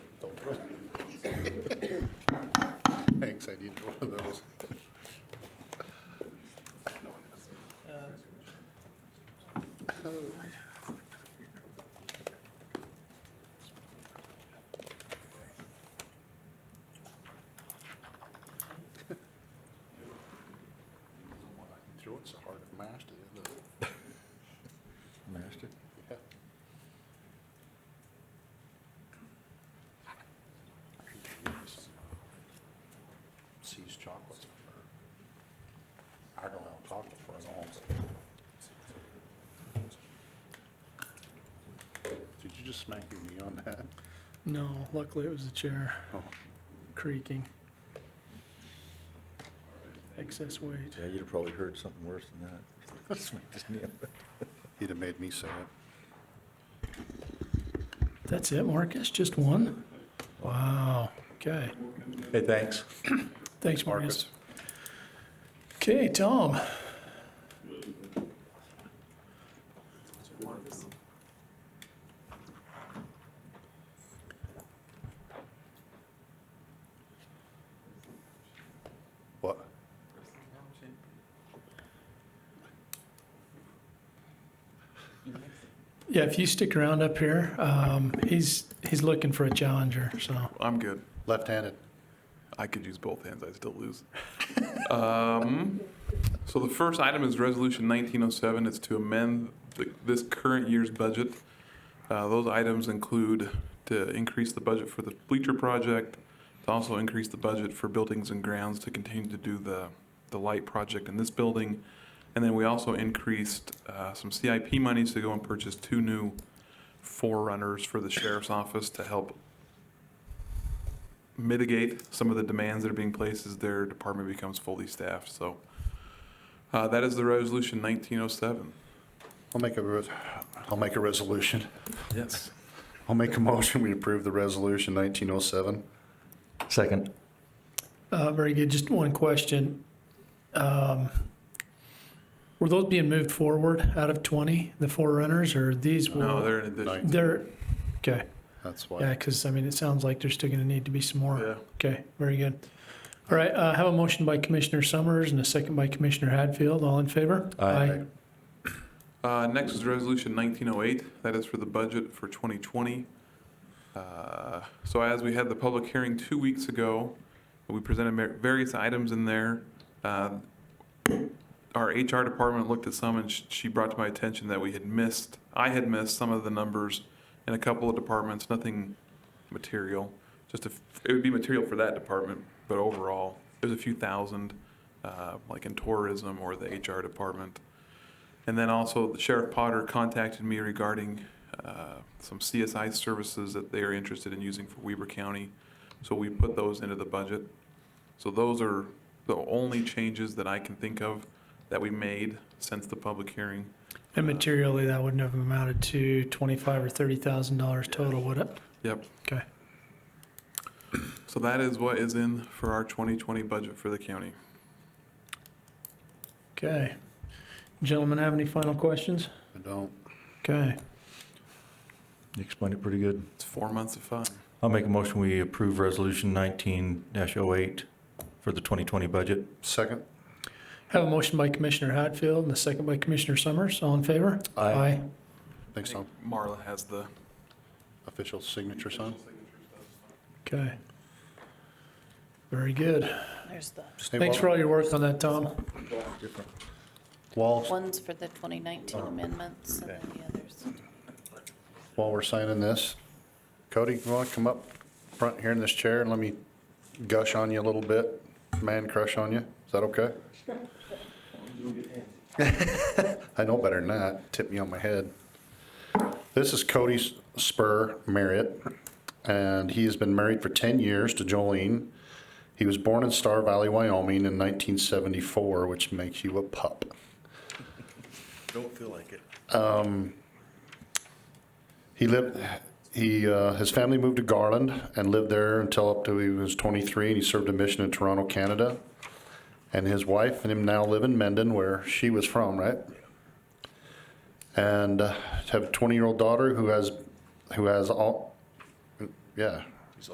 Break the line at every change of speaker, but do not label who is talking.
Uh,
it's so hard to master, isn't it?
Master.
Yeah. Sees chocolates. I don't have chocolate for an long Did you just smack me on that?
No, luckily it was the chair
Oh.
creaking. Excess weight.
Yeah, you'd have probably heard something worse than that. Smacked his knee.
He'd have made me say it.
That's it, Marcus? Just one? Wow. Okay.
Hey, thanks.
Thanks, Marcus. Okay, Tom.
What?
Yeah, if you stick around up here, um, he's, he's looking for a challenger, so.
I'm good.
Left-handed.
I could use both hands. I still lose. um, so the first item is Resolution 1907. It's to amend the, this current year's budget. Uh, those items include to increase the budget for the bleacher project, to also increase the budget for buildings and grounds to continue to do the, the light project in this building. And then we also increased uh, some CIP monies to go and purchase two new forerunners for the sheriff's office to help mitigate some of the demands that are being placed as their department becomes fully staffed. So uh, that is the resolution 1907.
I'll make a, res- I'll make a resolution.
Yes.
I'll make a motion, we approve the resolution 1907.
Second.
Uh, very good. Just one question. Um, were those being moved forward out of twenty, the forerunners, or these were?
No, they're in addition.
They're, okay.
That's
Yeah,
why.
because, I mean, it sounds like there's still going to need to be some more.
Yeah.
Okay, very good. All right, uh, have a motion by Commissioner Summers and a second by Commissioner Hadfield. All in favor?
Aye.
Uh, Next is resolution 1908. That is for the budget for 2020. Uh, So as we had the public hearing two weeks ago, we presented mar- various items in there. Uh, Our HR department looked at some, and sh- she brought to my attention that we had missed, I had missed some of the numbers in a couple of departments, nothing material. Just if, it would be material for that department, but overall, it was a few thousand, uh, like in tourism or the HR department. And then also Sheriff Potter contacted me regarding uh, some CSI services that they are interested in using for Weber County. So we put those into the budget. So those are the only changes that I can think of that we made since the public hearing.
And materially, that wouldn't have amounted to twenty-five or thirty thousand dollars total, would it?
Yep.
Okay,
So that is what is in for our 2020 budget for the county.
okay. Gentlemen, have any final questions?
I don't.
Okay,
You explained it pretty good.
It's four months of fun.
I'll make a motion, we approve Resolution 19-08 for the 2020 budget.
Second?
have a motion by Commissioner Hadfield and a second by Commissioner Summers. All in favor?
Aye.
I
Thanks, Tom.
think Marla has the
Official signature sign.
Okay. Very good.
There's the
Hey,
Thanks for
Wal-
all your work on that, Tom.
While,
ones for the 2019 amendments and then the others.
while we're signing this, Cody, you want to come up front here in this chair and let me gush on you a little bit? Man crush on you? Is that okay? I know better than that. Tip me on my head. This is Cody Spur Marriott, and he has been married for 10 years to Jolene. He was born in Star Valley, Wyoming in 1974, which makes you a pup.
Don't feel like it.
He lived, he, uh, his family moved to Garland and lived there until up to he was 23, and he served a mission in Toronto, Canada. And his wife and him now live in Mendon, where she was from, right? And uh, have a 20-year-old daughter who has, who has all, yeah,